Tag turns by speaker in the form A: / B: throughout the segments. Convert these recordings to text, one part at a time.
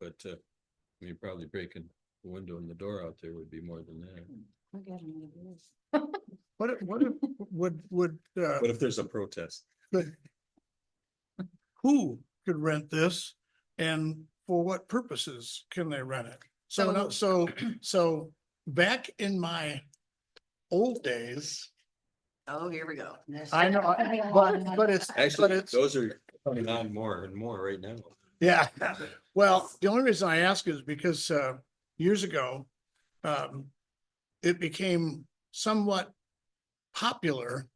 A: but, uh, I mean, probably breaking the window and the door out there would be more than that.
B: I'll get another beer.
C: What, if- what, if- would, would, uh,
A: What if there's a protest?
C: who could rent this? And for what purposes can they rent it? So, no- so, so back in my old days,
B: Oh, here we go.
C: I know, I- but, but it's, but
A: Actually,
C: it's,
A: those are coming on more and more right now.
C: yeah. Well, the only reason I ask is because, uh, years ago, um, it became somewhat popular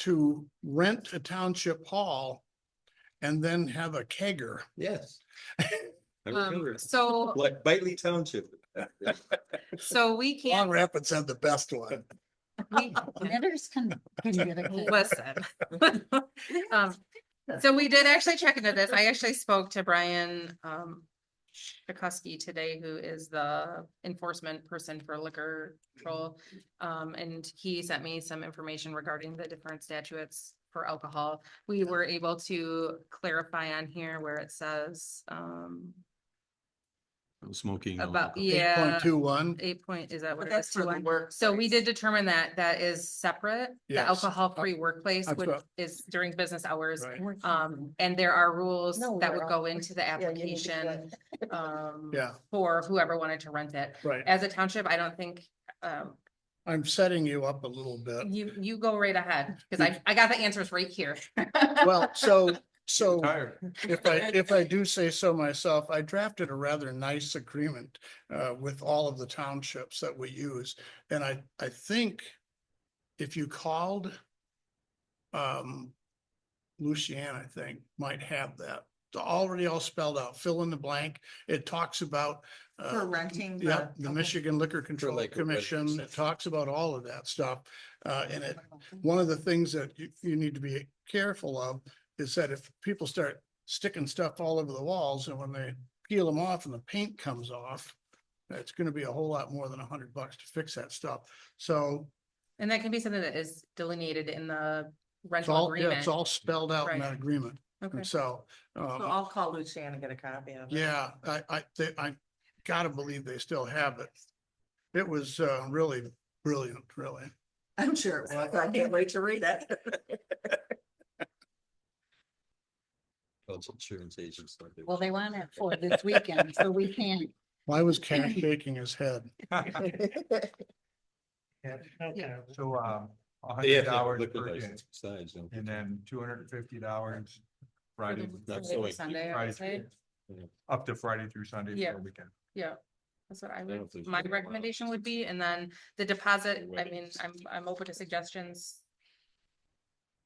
C: to rent a township hall and then have a kegger.
A: Yes. I
D: Um,
A: remember,
D: so,
A: like Bailey Township.
D: so we
C: Long
D: can't,
C: Rapids had the best one.
D: we,
B: Letters can, can get a kid.
D: listen. Um, So we did actually check into this. I actually spoke to Brian, um, Chakowski today, who is the enforcement person for liquor control. Um, and he sent me some information regarding the different statutes for alcohol. We were able to clarify on here where it says, um,
A: Smoking.
D: about,
C: Eight
D: yeah.
C: point two one.
D: Eight point, is that what
E: But
D: it is?
E: that's for
D: Two
E: the
D: one?
E: work.
D: So we did determine that that is separate, the
C: Yes.
D: alcohol-free workplace,
C: That's
D: which
C: what-
D: is during business hours.
C: Right.
D: Um, and there are rules
B: No,
D: that
B: we're
D: would
B: all-
D: go into the application, um,
C: Yeah,
D: for whoever wanted to rent it.
C: right.
D: As a township, I don't think, um,
C: I'm setting you up a little bit.
D: you, you go right ahead, because I, I got the answers right here.
C: Well, so, so
A: Tired.
C: if I, if I do say so myself, I drafted a rather nice agreement uh, with all of the townships that we use. And I, I think if you called um, Lucian, I think, might have that It's already all spelled out, fill in the blank. It talks about uh,
E: For renting. the-
C: Yep, the
E: okay.
C: Michigan Liquor Control
A: like a
C: Commission,
A: residence.
C: it talks about all of that stuff. Uh, and it, one of the things that you, you need to be careful of is that if people start sticking stuff all over the walls and when they peel them off and the paint comes off, it's gonna be a whole lot more than a hundred bucks to fix that stuff. So
D: And that can be something that is delineated in the
C: it's
D: rental
C: all, yeah,
D: agreement.
C: it's all spelled out in that
D: Right.
C: agreement.
D: Okay.
C: And so, um,
E: So I'll call Luciana and get a copy of it.
C: Yeah, I, I, they- I gotta believe they still have it. It was, uh, really brilliant, really.
E: I'm sure it was. I can't wait to read it.
A: Well, Insurance agents. like they-
B: Well, they want it for this weekend, so we can't.
C: Why was Ken shaking his head?
B: Yeah.
F: So, um, a
A: They have to have
F: hundred dollars
A: liquor
F: per day,
A: license Besides, don't
F: and then two hundred and fifty dollars
D: For
F: Friday,
D: the-
A: That's
D: for the
A: the way-
D: Sunday, I
F: Friday,
D: would say.
F: through-
A: Yeah.
F: up to Friday through Sunday
D: Yeah.
F: for the weekend.
D: Yeah, that's what I
A: don't know
D: would,
A: if there's
D: my
A: really a lot of
D: recommendation would be, and then the deposit, I
A: Right.
D: mean, I'm, I'm open to suggestions.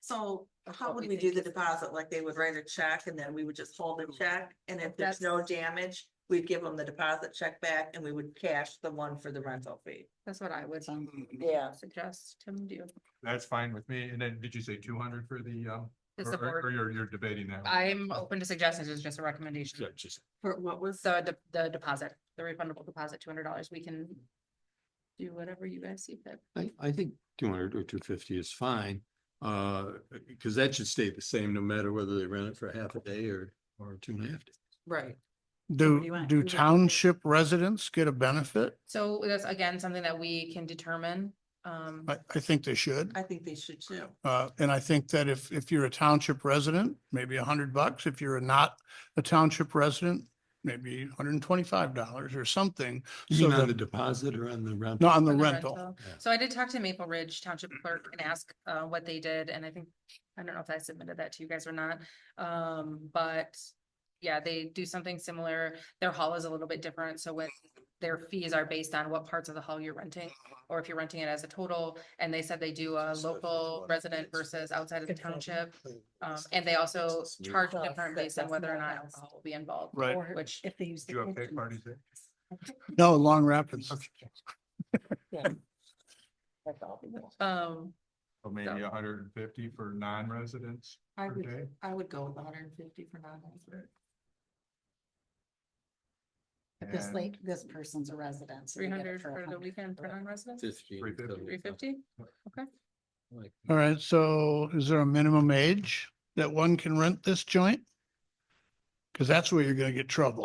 E: So
D: That's
E: how
D: what
E: would
D: we
E: we do
D: think
E: the
D: is-
E: deposit? Like they would write a check and then we would just hold the check? And if
D: That's-
E: there's no damage, we'd give them the deposit check back and we would cash the one for the rental fee.
D: That's what I would
B: Mm-hmm.
E: Yeah.
D: suggest Tim do.
F: That's fine with me, and then did you say two hundred for the, um,
D: The
F: or- or, or
D: support,
F: you're, you're debating that? one?
D: I'm open to suggestions, it's just a recommendation.
A: Yeah, just-
E: For what was?
D: So the, the deposit, the refundable deposit, two hundred dollars, we can do whatever you guys see fit.
A: I, I think two hundred or two fifty is fine, uh, because that should stay the same no matter whether they rent it for half a day or, or two and a half. days.
E: Right.
B: what do you
C: Do,
B: want?
C: do
B: Do we-
C: township residents get a benefit?
D: So that's again, something that we can determine, um,
C: I, I think they should.
E: I think they should too.
C: Uh, and I think that if, if you're a township resident, maybe a hundred bucks. If you're not a township resident, maybe hundred and twenty-five dollars or something.
A: You
C: So
A: mean on the
C: that-
A: deposit or on the rent?
C: No, on the
D: on
C: rental.
A: Yeah.
D: So I did talk to Maple Ridge Township Clerk and ask uh what they did, and I think, I don't know if I submitted that to you guys or not, um, but. Yeah, they do something similar, their haul is a little bit different, so when their fees are based on what parts of the haul you're renting. Or if you're renting it as a total, and they said they do a local resident versus outside of the township. Um, and they also charge different based on whether or not alcohol will be involved,
C: Right.
B: Or
D: which-
B: If they use.
F: Do you have cake parties there?
C: No, Long Rapids.
D: um.
F: Or maybe a hundred and fifty for non-residents
E: I
F: per
E: would,
F: day?
E: I would go with hundred and fifty for non-resident.
B: This
F: and-
B: like, this person's a resident. so they
D: Three
B: get it
D: hundred
B: for a
D: for the
B: hundred.
D: weekend for non-residents,
A: Fifteen.
F: 350.
D: three fifty?
A: Like-
C: All right, so is there a minimum age that one can rent this joint? Cause that's where you're gonna get trouble.